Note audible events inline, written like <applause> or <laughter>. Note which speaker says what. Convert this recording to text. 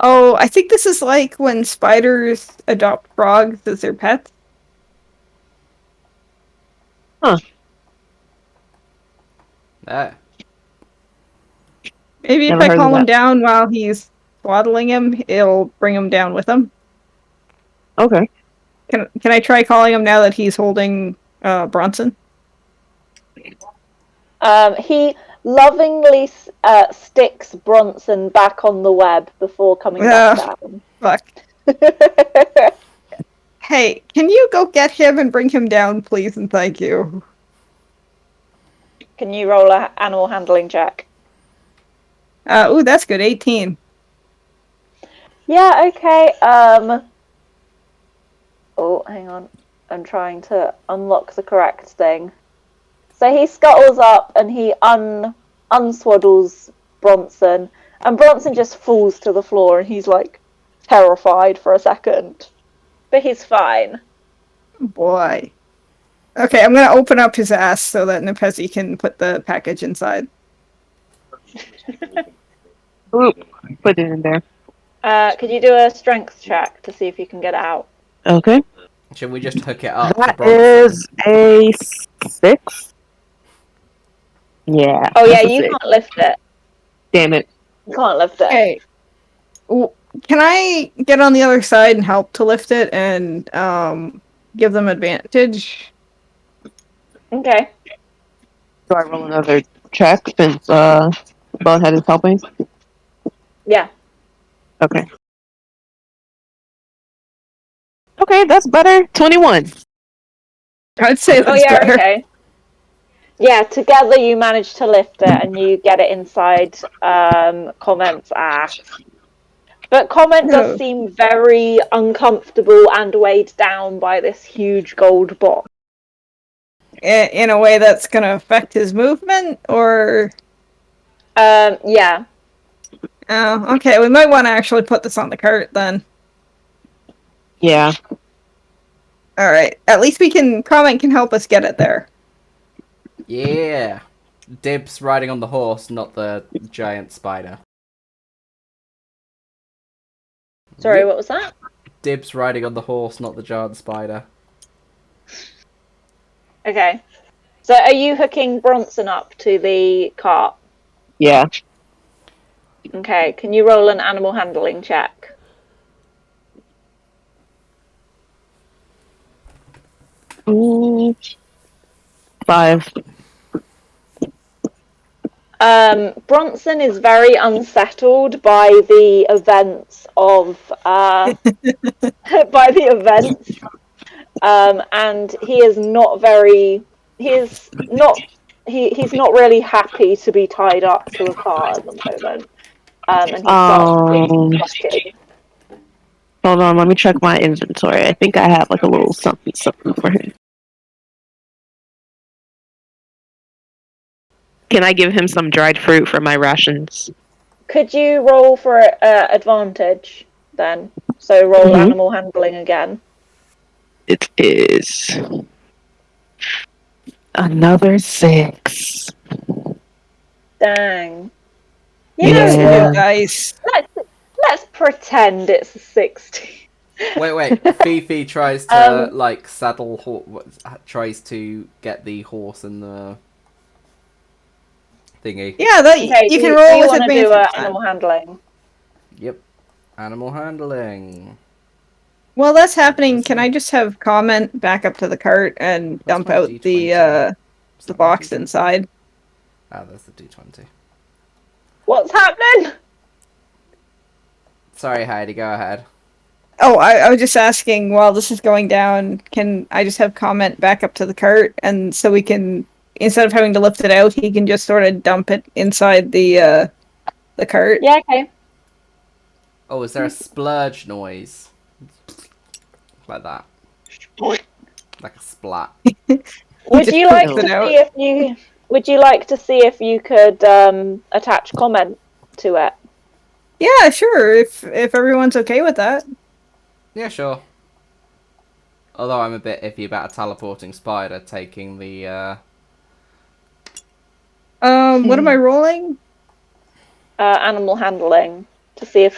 Speaker 1: Oh, I think this is like when spiders adopt frogs as their pets.
Speaker 2: That
Speaker 1: Maybe if
Speaker 3: Never
Speaker 1: I
Speaker 3: heard of
Speaker 1: calm him
Speaker 3: that.
Speaker 1: down while he's swaddling him, it'll bring him down with him.
Speaker 3: Okay.
Speaker 1: Can can I try calling him now that he's holding uh, Bronson?
Speaker 4: Um, he lovingly s- uh, sticks Bronson back on the web before coming
Speaker 1: Yeah.
Speaker 4: back down. <laughs>
Speaker 1: Fuck. Hey, can you go get him and bring him down, please, and thank you.
Speaker 4: Can you roll a animal handling check?
Speaker 1: Uh, ooh, that's good. Eighteen.
Speaker 4: Yeah, okay. Um Oh, hang on. I'm trying to unlock the correct thing. So he scuttles up and he un unswaddles Bronson and Bronson just falls to the floor and he's like terrified for a second. But he's fine.
Speaker 1: Oh, Boy. Okay, I'm gonna open up his ass so that Nepezi can put the package inside.
Speaker 3: Oop. Put it in there.
Speaker 4: Uh could you do a strength check to see if you can get it out?
Speaker 3: Okay.
Speaker 2: should we just hook it up? to
Speaker 3: That
Speaker 2: Bronson?
Speaker 3: is a six. Yeah.
Speaker 4: Oh yeah,
Speaker 3: that's a
Speaker 4: you
Speaker 3: six.
Speaker 4: can't lift it.
Speaker 3: Damn it.
Speaker 4: You can't lift it.
Speaker 1: Okay. W- Can I get on the other side and help to lift it and um, give them advantage?
Speaker 4: Okay.
Speaker 3: Do I roll another check since uh, Bonehead is helping?
Speaker 4: Yeah.
Speaker 3: Okay. Okay, that's better. 21.
Speaker 1: I'd say that's
Speaker 4: oh yeah,
Speaker 1: better.
Speaker 4: okay. Yeah, together you manage to lift it and you get it inside um, Comment's ass. But Comment
Speaker 1: No.
Speaker 4: does seem very uncomfortable and weighed down by this huge gold box.
Speaker 1: I- In a way that's gonna affect his movement, or
Speaker 4: Um, yeah,
Speaker 1: oh, okay, we might want to actually put this on the cart then.
Speaker 3: Yeah.
Speaker 1: All right, at least we can comment can help us get it there.
Speaker 2: Yeah. Dibs riding on the horse, not the giant spider.
Speaker 4: sorry, what was that?
Speaker 2: Dibs riding on the horse, not the giant spider.
Speaker 4: Okay. So are you hooking Bronson up to the cart?
Speaker 3: Yeah.
Speaker 4: Okay, can you roll an animal handling check?
Speaker 3: Ooh. Five.
Speaker 4: Um, Bronson is very unsettled by the events of uh, <laughs> by the events, um, and he is not very. He is not. He, he's not really happy to be tied up to a car at the moment, um, and he starts
Speaker 3: Um.
Speaker 4: being fussy.
Speaker 3: Hold on, let me check my inventory. I think I have like a little something something for him. Can I give him some dried fruit for my rations?
Speaker 4: Could you roll for uh, advantage then? So roll
Speaker 3: Mhm.
Speaker 4: animal handling again.
Speaker 3: It is another six.
Speaker 4: Dang. You
Speaker 3: Yeah.
Speaker 4: know
Speaker 1: Those
Speaker 4: what?
Speaker 1: little dice.
Speaker 4: Let's pretend it's a 60.
Speaker 1: <laughs>
Speaker 2: Wait, wait. Fifi tries to
Speaker 1: Um,
Speaker 2: like saddle hor- what- tries to get the horse and the thingy.
Speaker 1: Yeah, that
Speaker 4: Okay,
Speaker 1: you
Speaker 4: do
Speaker 1: can
Speaker 4: do
Speaker 1: roll
Speaker 4: you
Speaker 1: with
Speaker 4: wanna
Speaker 1: advantage.
Speaker 4: Do, uh,
Speaker 1: then.
Speaker 4: animal handling.
Speaker 2: Yep. Animal handling.
Speaker 1: While that's happening, can I just have comment back up to the cart and
Speaker 2: That's
Speaker 1: dump
Speaker 2: my
Speaker 1: out
Speaker 2: D20.
Speaker 1: the uh,
Speaker 2: Is
Speaker 1: the
Speaker 2: that my
Speaker 1: box
Speaker 2: D20?
Speaker 1: inside?
Speaker 2: Ah, that's the D20.
Speaker 4: What's happening?
Speaker 2: Sorry, Heidi. Go ahead.
Speaker 1: Oh, I, I was just asking while this is going down, can I just have comment back up to the cart and so we can instead of having to lift it out, he can just sort of dump it inside the uh the cart.
Speaker 4: Yeah, okay.
Speaker 2: Oh, is there a splurge noise? Like that. Like a splat.
Speaker 1: He
Speaker 4: Would
Speaker 1: just
Speaker 4: you like
Speaker 1: dumps
Speaker 4: to
Speaker 1: it out.
Speaker 4: see if you would you like to see if you could um, attach comment to it?
Speaker 1: Yeah, sure. If if everyone's okay with that.
Speaker 2: Yeah, sure. Although I'm a bit iffy about a teleporting spider taking the uh
Speaker 1: Um, what am I rolling?
Speaker 4: Uh, animal handling to see if